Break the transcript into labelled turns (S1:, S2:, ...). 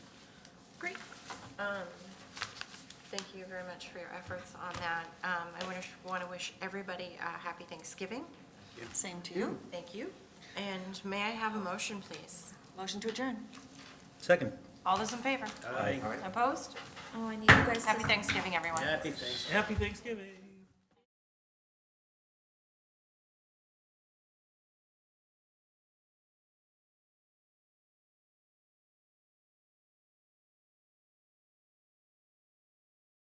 S1: Um, Thank you very much for your efforts on that. Um, I want to, want to wish everybody a happy Thanksgiving.
S2: Same to you.
S1: Thank you. And may I have a motion, please?
S2: Motion to adjourn.
S3: Second.
S1: All those in favor?
S3: Aye.
S1: Opposed?
S4: Oh, I need you guys to.
S1: Happy Thanksgiving, everyone.
S3: Happy Thanksgiving.
S5: Happy Thanksgiving.